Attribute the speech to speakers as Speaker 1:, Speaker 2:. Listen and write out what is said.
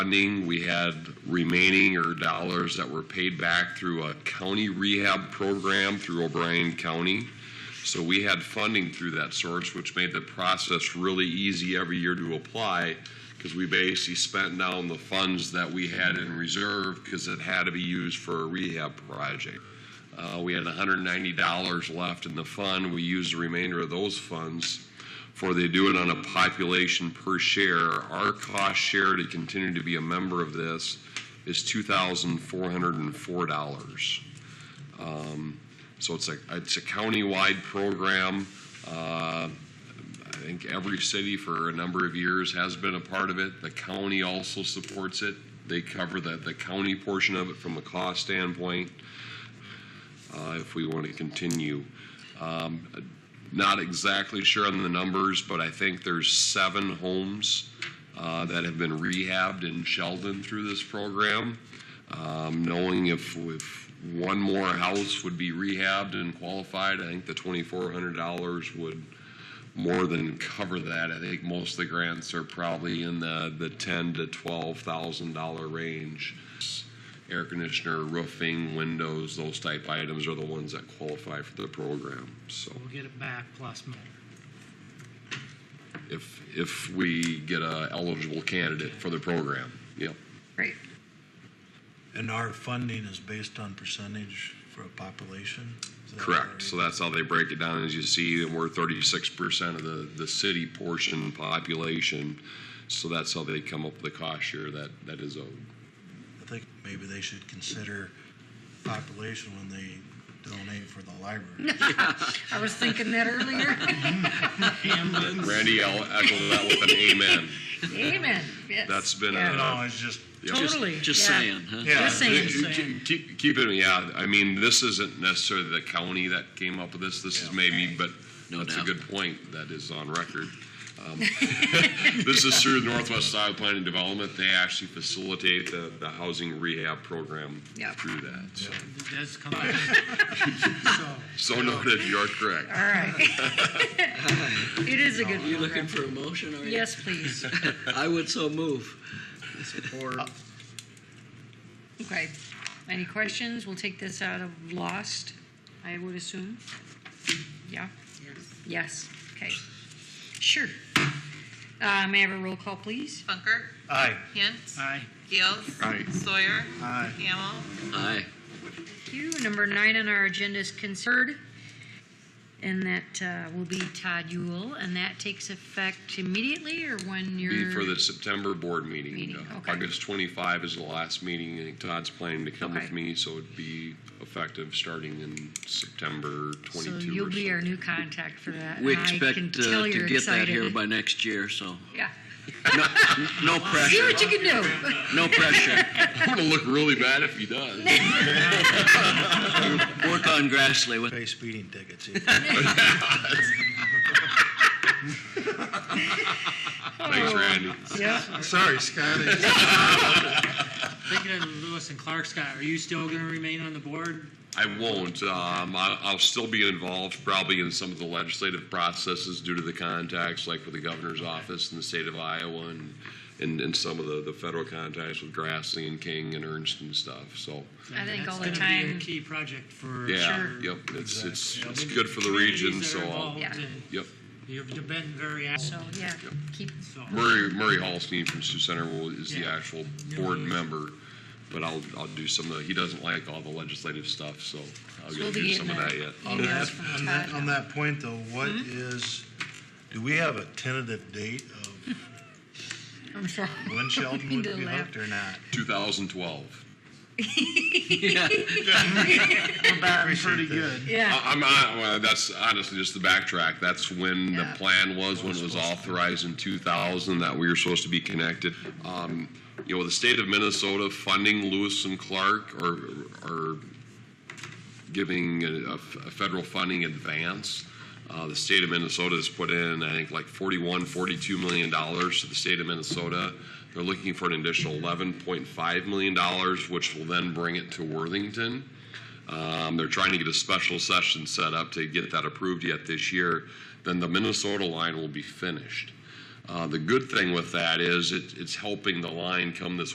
Speaker 1: funding we had remaining or dollars that were paid back through a county rehab program through O'Brien County. So we had funding through that source, which made the process really easy every year to apply because we basically spent down the funds that we had in reserve because it had to be used for a rehab project. Uh, We had $190 left in the fund. We used the remainder of those funds for they do it on a population per share. Our cost share to continue to be a member of this is $2,404. Um, So it's a, it's a countywide program. Uh, I think every city for a number of years has been a part of it. The county also supports it. They cover the, the county portion of it from a cost standpoint, uh, if we want to continue. Um, Not exactly sure on the numbers, but I think there's seven homes uh, that have been rehabbed in Sheldon through this program. Um, Knowing if, if one more house would be rehabbed and qualified, I think the $2,400 would more than cover that. I think most of the grants are probably in the, the ten to twelve thousand dollar range. Air conditioner, roofing, windows, those type items are the ones that qualify for the program. So
Speaker 2: We'll get it back plus more.
Speaker 1: if, if we get a eligible candidate for the program, yep.
Speaker 3: Great.
Speaker 4: And our funding is based on percentage for a population? Is that
Speaker 1: Correct. So
Speaker 4: right?
Speaker 1: that's how they break it down. As you see, we're thirty-six percent of the, the city portion population. So that's how they come up with the cost share that, that is owed.
Speaker 4: I think maybe they should consider population when they donate for the library.
Speaker 3: I was thinking that earlier.
Speaker 1: Randy, I'll echo that with an amen.
Speaker 3: Amen. Yes.
Speaker 1: That's been
Speaker 3: Yeah.
Speaker 1: a-
Speaker 4: No, it's just,
Speaker 1: Yep.
Speaker 3: Totally.
Speaker 5: Just
Speaker 3: yeah.
Speaker 5: saying, huh?
Speaker 4: yeah.
Speaker 3: Just saying.
Speaker 2: Just saying.
Speaker 1: Keep, keep it, yeah, I mean, this isn't necessarily the county that came up with this, this is maybe, but
Speaker 5: No
Speaker 1: that's a
Speaker 5: doubt.
Speaker 1: good point, that is on record. Um, This is through Northwest Iowa Planning and Development, they actually facilitate the, the housing rehab program
Speaker 3: Yeah.
Speaker 1: through that, so.
Speaker 2: It does come back. So,
Speaker 1: So noted, you are correct.
Speaker 3: All right. It is a good
Speaker 5: You
Speaker 3: program.
Speaker 5: looking for a motion, or?
Speaker 3: Yes, please.
Speaker 5: I would so move.
Speaker 3: Okay. Any questions? We'll take this out of lost, I would assume. Yeah? Yes. Yes. Okay. Sure. Uh, May I have a roll call, please?
Speaker 6: Funker.
Speaker 4: Aye.
Speaker 6: Hintz.
Speaker 2: aye.
Speaker 6: Gales.
Speaker 1: Aye.
Speaker 6: Sawyer.
Speaker 4: Aye.
Speaker 6: Hamel.
Speaker 5: Aye.
Speaker 3: Thank you. Number nine on our agenda is considered, and that uh, will be Todd Yule, and that takes effect immediately or when you're...
Speaker 1: Be for the September board meeting.
Speaker 3: Meeting,
Speaker 1: Uh,
Speaker 3: okay.
Speaker 1: August 25 is the last meeting, and Todd's planning to come with
Speaker 3: Okay.
Speaker 1: me, so it'd be effective starting in September 22 or
Speaker 3: So
Speaker 1: something.
Speaker 3: you'll be our new contact for that.
Speaker 5: We
Speaker 3: and I
Speaker 5: expect
Speaker 3: can
Speaker 5: uh,
Speaker 3: tell
Speaker 5: to
Speaker 3: you're
Speaker 5: get that
Speaker 3: excited.
Speaker 5: here by next year, so
Speaker 3: Yeah.
Speaker 5: no, no
Speaker 3: See
Speaker 5: pressure,
Speaker 3: what you can do.
Speaker 5: no pressure.
Speaker 1: I'm gonna look really bad if he does.
Speaker 5: Work on Grassley with,
Speaker 4: Pay speeding tickets. either.
Speaker 1: Thanks, Randy.
Speaker 4: Sorry, Scotty.
Speaker 2: Thinking of uh, Lewis and Clark, Scott, are you still going to remain on the board?
Speaker 1: I won't. Um, I, I'll still be involved probably in some of the legislative processes due to the contacts, like with the governor's office in the state of Iowa and, and, and some of the, the federal contacts with Grassley and King and Ernst and stuff. So,
Speaker 3: I think all
Speaker 2: That's going
Speaker 3: the
Speaker 2: to be
Speaker 3: time-
Speaker 2: a key project for.
Speaker 1: yeah,
Speaker 3: Sure.
Speaker 1: yep, it's, it's,
Speaker 4: Exactly.
Speaker 1: it's good for the region,
Speaker 2: communities
Speaker 1: so
Speaker 2: that are
Speaker 1: I'll,
Speaker 2: involved,
Speaker 3: Yeah.
Speaker 2: and
Speaker 1: yep.
Speaker 2: You've been very active.
Speaker 3: So, yeah, keep,
Speaker 2: So,
Speaker 1: Murray, Murray Hallstein from Sioux Center will, is the
Speaker 2: Yeah.
Speaker 1: actual board member, but I'll, I'll do some of the, he doesn't like all the legislative stuff, so I'll go
Speaker 3: we'll be
Speaker 1: do
Speaker 3: getting
Speaker 1: some of
Speaker 3: that
Speaker 1: that yet.
Speaker 3: emails from
Speaker 4: On that- On
Speaker 3: Todd.
Speaker 4: that point, though, what
Speaker 3: Hmm?
Speaker 4: is, do we have a tentative date of
Speaker 3: I'm sorry.
Speaker 4: when Sheldon would
Speaker 3: Need to
Speaker 4: be
Speaker 3: laugh.
Speaker 4: hooked or not?
Speaker 1: 2012.
Speaker 5: yeah,
Speaker 3: Um,
Speaker 4: Pretty good.
Speaker 3: Yeah,
Speaker 1: I- I'm, I, well, that's honestly just the backtrack. That's when the
Speaker 3: Yeah.
Speaker 1: plan was, when it was authorized in 2000, that we were supposed to be connected. Um, You know, the state of Minnesota funding Lewis and Clark or, or giving a, a federal funding advance. Uh, the state of Minnesota has put in, I think, like 41, 42 million dollars to the state of Minnesota. They're looking for an additional 11.5 million dollars, which will then bring it to Worthington. Um, they're trying to get a special session set up to get that approved yet this year. Then the Minnesota line will be finished. Uh, the good thing with that is it, it's helping the line come this